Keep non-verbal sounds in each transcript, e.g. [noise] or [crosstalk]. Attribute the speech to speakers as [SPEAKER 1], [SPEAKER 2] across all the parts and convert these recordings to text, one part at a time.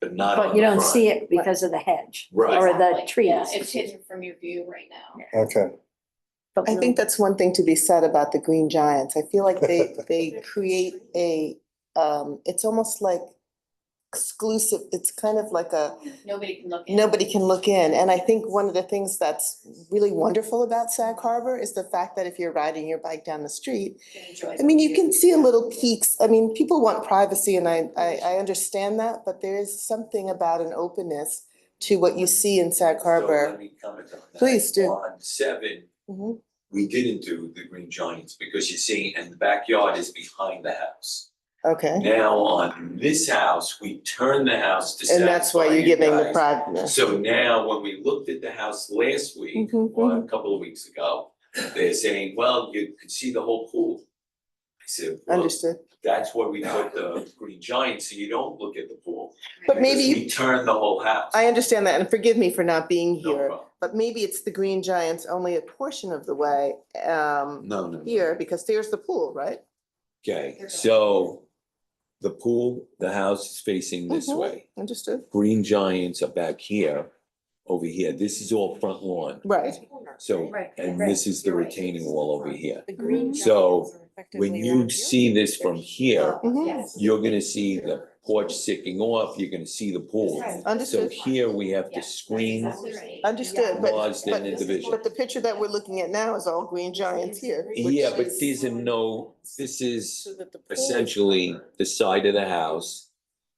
[SPEAKER 1] but not on
[SPEAKER 2] But
[SPEAKER 1] the
[SPEAKER 2] you don't
[SPEAKER 1] front.
[SPEAKER 2] see it because of the hedge
[SPEAKER 1] Right,
[SPEAKER 2] or the
[SPEAKER 3] Exactly, yeah,
[SPEAKER 2] trees.
[SPEAKER 3] It's hidden from your view right now.
[SPEAKER 4] Okay,
[SPEAKER 2] But
[SPEAKER 5] I
[SPEAKER 2] we-
[SPEAKER 5] think that's one thing to be said about the green giants. I feel like they,
[SPEAKER 1] [laughs]
[SPEAKER 5] they create a, um, it's almost like exclusive, it's kind of like a,
[SPEAKER 3] Nobody can look in.
[SPEAKER 5] nobody can look in. And I think one of the things that's really wonderful about Sag Harbor is the fact that if you're riding your bike down the street,
[SPEAKER 3] can enjoy
[SPEAKER 5] I mean, you
[SPEAKER 3] the
[SPEAKER 5] can
[SPEAKER 3] view.
[SPEAKER 5] see a little peaks. I mean, people want privacy and I, I, I understand that, but there is something about an openness to what you see in Sag
[SPEAKER 1] So
[SPEAKER 5] Harbor.
[SPEAKER 1] let me comment on that.
[SPEAKER 5] Please do.
[SPEAKER 1] On seven,
[SPEAKER 5] Mhm.
[SPEAKER 1] we didn't do the green giants because you're seeing, and the backyard is behind the house.
[SPEAKER 5] Okay,
[SPEAKER 1] Now on this house, we turned the house to
[SPEAKER 5] and that's why
[SPEAKER 1] satisfy
[SPEAKER 5] you're
[SPEAKER 1] you
[SPEAKER 5] giving the
[SPEAKER 1] guys.
[SPEAKER 5] privacy.
[SPEAKER 1] So now, when we looked at the house last week,
[SPEAKER 5] Mhm,
[SPEAKER 1] or a couple of weeks ago, they're saying, well, you could see the whole pool. I said, well,
[SPEAKER 5] Understood.
[SPEAKER 1] that's where we put the green giant, so you don't look at the pool.
[SPEAKER 5] But maybe
[SPEAKER 1] because
[SPEAKER 5] you-
[SPEAKER 1] We turned the whole house.
[SPEAKER 5] I understand that, and forgive me for not being
[SPEAKER 1] No
[SPEAKER 5] here,
[SPEAKER 1] problem.
[SPEAKER 5] but maybe it's the Green Giants only a portion of the way, um,
[SPEAKER 6] No, no.
[SPEAKER 5] here, because there's the pool, right?
[SPEAKER 6] Okay, so the pool, the house is facing this
[SPEAKER 5] Mhm.
[SPEAKER 6] way.
[SPEAKER 5] Understood?
[SPEAKER 6] Green giants are back here, over here. This is all front lawn.
[SPEAKER 5] Right.
[SPEAKER 6] So,
[SPEAKER 2] Right,
[SPEAKER 6] and
[SPEAKER 2] right.
[SPEAKER 6] this is the
[SPEAKER 2] You're right.
[SPEAKER 6] retaining wall over here.
[SPEAKER 7] The green
[SPEAKER 5] Mm-hmm.
[SPEAKER 6] So,
[SPEAKER 7] giants are
[SPEAKER 6] When
[SPEAKER 7] effectively
[SPEAKER 6] you
[SPEAKER 7] around here.
[SPEAKER 6] see this from here,
[SPEAKER 5] Mhm.
[SPEAKER 3] Yes.
[SPEAKER 6] you're gonna see the porch sticking off, you're gonna see the pool.
[SPEAKER 3] Right.
[SPEAKER 6] So
[SPEAKER 5] Understood,
[SPEAKER 6] here we have to
[SPEAKER 3] Yeah,
[SPEAKER 6] screen
[SPEAKER 3] That's exactly right.
[SPEAKER 5] understood, but,
[SPEAKER 6] lodged in
[SPEAKER 5] but,
[SPEAKER 6] the division.
[SPEAKER 5] but the picture that we're looking at now is all Green Giants here. which
[SPEAKER 6] Yeah, but
[SPEAKER 5] is-
[SPEAKER 6] these are no, this is
[SPEAKER 5] so that the pool is
[SPEAKER 6] essentially the side of the house,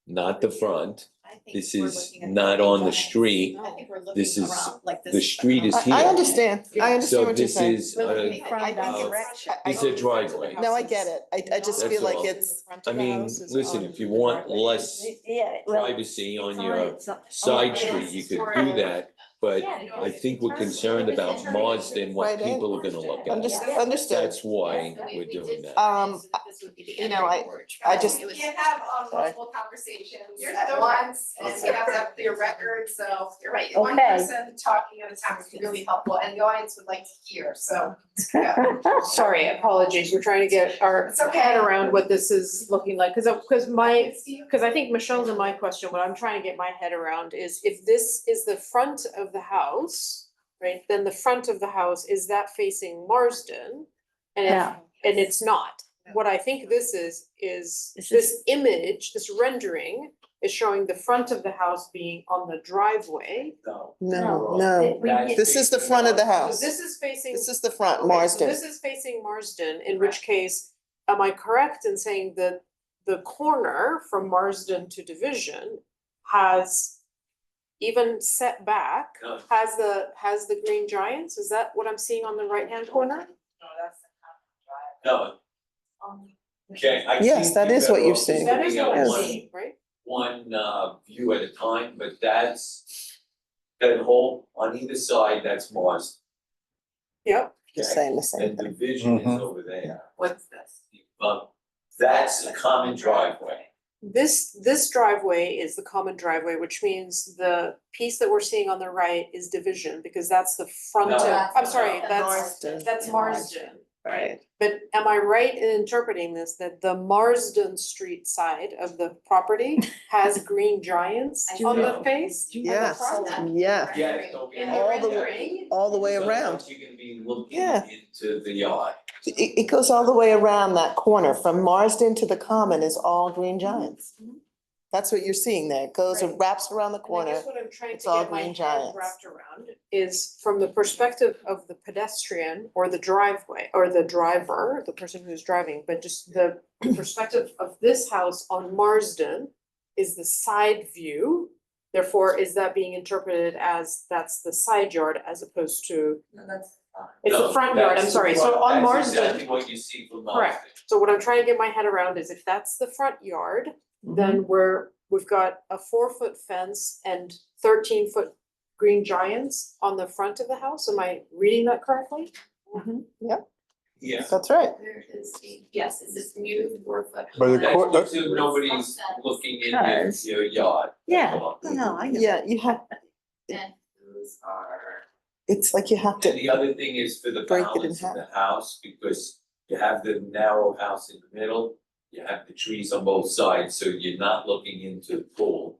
[SPEAKER 6] not the front.
[SPEAKER 3] I think
[SPEAKER 6] This
[SPEAKER 3] we're
[SPEAKER 6] is
[SPEAKER 3] looking at
[SPEAKER 6] not on the
[SPEAKER 3] giants.
[SPEAKER 6] street.
[SPEAKER 3] I think we're
[SPEAKER 6] This
[SPEAKER 3] looking
[SPEAKER 6] is-
[SPEAKER 3] around like this.
[SPEAKER 6] the street is
[SPEAKER 5] I, I
[SPEAKER 6] here.
[SPEAKER 5] understand, I
[SPEAKER 6] So
[SPEAKER 5] understand what you're
[SPEAKER 6] this
[SPEAKER 5] saying.
[SPEAKER 6] is,
[SPEAKER 3] We're
[SPEAKER 6] uh,
[SPEAKER 3] looking at- I think it's-
[SPEAKER 5] I- I-
[SPEAKER 6] These are driveway.
[SPEAKER 5] No, I get it, I, I just
[SPEAKER 6] That's
[SPEAKER 5] feel like
[SPEAKER 6] all.
[SPEAKER 5] it's,
[SPEAKER 6] I mean, listen, if you want less
[SPEAKER 2] Yeah, well,
[SPEAKER 6] privacy
[SPEAKER 2] it's
[SPEAKER 6] on
[SPEAKER 2] on
[SPEAKER 6] your
[SPEAKER 2] its own-
[SPEAKER 6] side
[SPEAKER 3] Yeah.
[SPEAKER 6] street, you could do that. But I think we're concerned about Marsden, what
[SPEAKER 5] Right, eh?
[SPEAKER 6] people are gonna look
[SPEAKER 5] under-
[SPEAKER 6] at.
[SPEAKER 3] Understood.
[SPEAKER 5] understood,
[SPEAKER 6] That's why we're doing that.
[SPEAKER 5] Um, you know, I- I just-
[SPEAKER 8] You can't have um, multiple conversations
[SPEAKER 3] You're
[SPEAKER 8] at
[SPEAKER 3] so
[SPEAKER 8] once, and
[SPEAKER 3] right.
[SPEAKER 8] you have to have clear records, so you're right. One
[SPEAKER 2] Okay.
[SPEAKER 8] person talking at a time is really helpful, and the audience would like to hear, so.
[SPEAKER 7] [laughs] Sorry, apologies, we're trying to get our
[SPEAKER 8] It's okay.
[SPEAKER 7] head around what this is looking like, cause, I- cause my,
[SPEAKER 8] It's you.
[SPEAKER 7] cause I think Michelle's and my question, what I'm trying to get my head around is if this is the front of the house, right, then the front of the house, is that facing Marsden? And if
[SPEAKER 2] Yeah,
[SPEAKER 7] and it's not. What I think this is, is
[SPEAKER 2] This
[SPEAKER 7] this image, this rendering is showing the front of the house being on the driveway.
[SPEAKER 1] No.
[SPEAKER 5] no,
[SPEAKER 2] No.
[SPEAKER 5] no,
[SPEAKER 2] It- we
[SPEAKER 1] That's
[SPEAKER 2] did-
[SPEAKER 5] this is the front of the
[SPEAKER 7] So
[SPEAKER 5] house,
[SPEAKER 7] this is facing.
[SPEAKER 5] this is the front,
[SPEAKER 7] okay, so
[SPEAKER 5] Marsden.
[SPEAKER 7] This is facing Marsden, in which case, am I correct in saying that the corner from Marsden to Division has even set back,
[SPEAKER 1] No.
[SPEAKER 7] has the, has the green giants? Is that what I'm seeing on the right-hand corner?
[SPEAKER 8] No, that's
[SPEAKER 1] No, okay, I
[SPEAKER 5] Yes,
[SPEAKER 1] think
[SPEAKER 5] that
[SPEAKER 1] you're
[SPEAKER 5] is what
[SPEAKER 1] better
[SPEAKER 5] you're
[SPEAKER 1] off just
[SPEAKER 5] seeing.
[SPEAKER 7] That is
[SPEAKER 1] looking at
[SPEAKER 7] what I'm
[SPEAKER 1] one-
[SPEAKER 7] seeing, right?
[SPEAKER 1] One uh view at a time, but that's that whole on either side, that's Mars.
[SPEAKER 7] Yep.
[SPEAKER 5] You're saying the same
[SPEAKER 1] And
[SPEAKER 5] thing.
[SPEAKER 1] division is
[SPEAKER 4] Mhm.
[SPEAKER 1] over there.
[SPEAKER 8] What's this?
[SPEAKER 1] Um, that's a common driveway.
[SPEAKER 7] This, this driveway is the common driveway, which means the piece that we're seeing on the right is division, because that's the front
[SPEAKER 1] No.
[SPEAKER 7] of, I'm sorry,
[SPEAKER 8] No.
[SPEAKER 7] that's,
[SPEAKER 5] Marsden.
[SPEAKER 7] that's Marsden.
[SPEAKER 5] Right.
[SPEAKER 7] But am I right in interpreting this, that the Marsden Street side of the property has green giants
[SPEAKER 3] I
[SPEAKER 7] on the
[SPEAKER 1] see.
[SPEAKER 7] face?
[SPEAKER 5] Yes,
[SPEAKER 3] front.
[SPEAKER 5] yeah,
[SPEAKER 1] Yeah, don't get.
[SPEAKER 3] And
[SPEAKER 5] All the way-
[SPEAKER 3] rendering,
[SPEAKER 5] all the way
[SPEAKER 1] Because
[SPEAKER 5] around.
[SPEAKER 1] You're gonna be looking
[SPEAKER 5] Yeah.
[SPEAKER 1] into the yard.
[SPEAKER 5] It, it goes all the way around that corner, from Marsden to the common is all Green Giants. That's what you're seeing there, it goes, it
[SPEAKER 7] Right.
[SPEAKER 5] wraps around the
[SPEAKER 7] And I
[SPEAKER 5] corner.
[SPEAKER 7] guess what I'm trying
[SPEAKER 5] it's
[SPEAKER 7] to
[SPEAKER 5] all
[SPEAKER 7] get my
[SPEAKER 5] green
[SPEAKER 7] head
[SPEAKER 5] giants.
[SPEAKER 7] wrapped around is from the perspective of the pedestrian or the driveway, or the driver, the person who's driving, but just the [clears throat] perspective of this house on Marsden is the side view, therefore is that being interpreted as that's the side yard as opposed to,
[SPEAKER 8] No, that's.
[SPEAKER 7] it's
[SPEAKER 1] No,
[SPEAKER 7] the front yard, I'm
[SPEAKER 1] that's
[SPEAKER 7] sorry,
[SPEAKER 1] the
[SPEAKER 7] so
[SPEAKER 1] front.
[SPEAKER 7] on
[SPEAKER 1] That's
[SPEAKER 7] Marsden,
[SPEAKER 1] exactly what you see from Marsden.
[SPEAKER 7] Correct. so what I'm trying to get my head around is if that's the front yard, then we're, we've got a four foot fence and thirteen foot green giants on the front of the house, am I reading that correctly?
[SPEAKER 1] Yeah.
[SPEAKER 5] That's right.
[SPEAKER 8] There is, a- yes, it's this new four foot.
[SPEAKER 4] But the
[SPEAKER 1] That's
[SPEAKER 4] court-
[SPEAKER 1] what you- nobody's
[SPEAKER 3] Offsets.
[SPEAKER 1] looking in your-
[SPEAKER 2] Cars.
[SPEAKER 1] your yard.
[SPEAKER 2] Yeah. No, I get it.
[SPEAKER 5] Yeah, you have,
[SPEAKER 8] And those are.
[SPEAKER 5] it's like you have
[SPEAKER 1] And
[SPEAKER 5] to,
[SPEAKER 1] the other thing is for the
[SPEAKER 5] Break it in
[SPEAKER 1] balance of the house, because you have the narrow house in the middle, you have the trees on both sides, so you're not looking into the pool.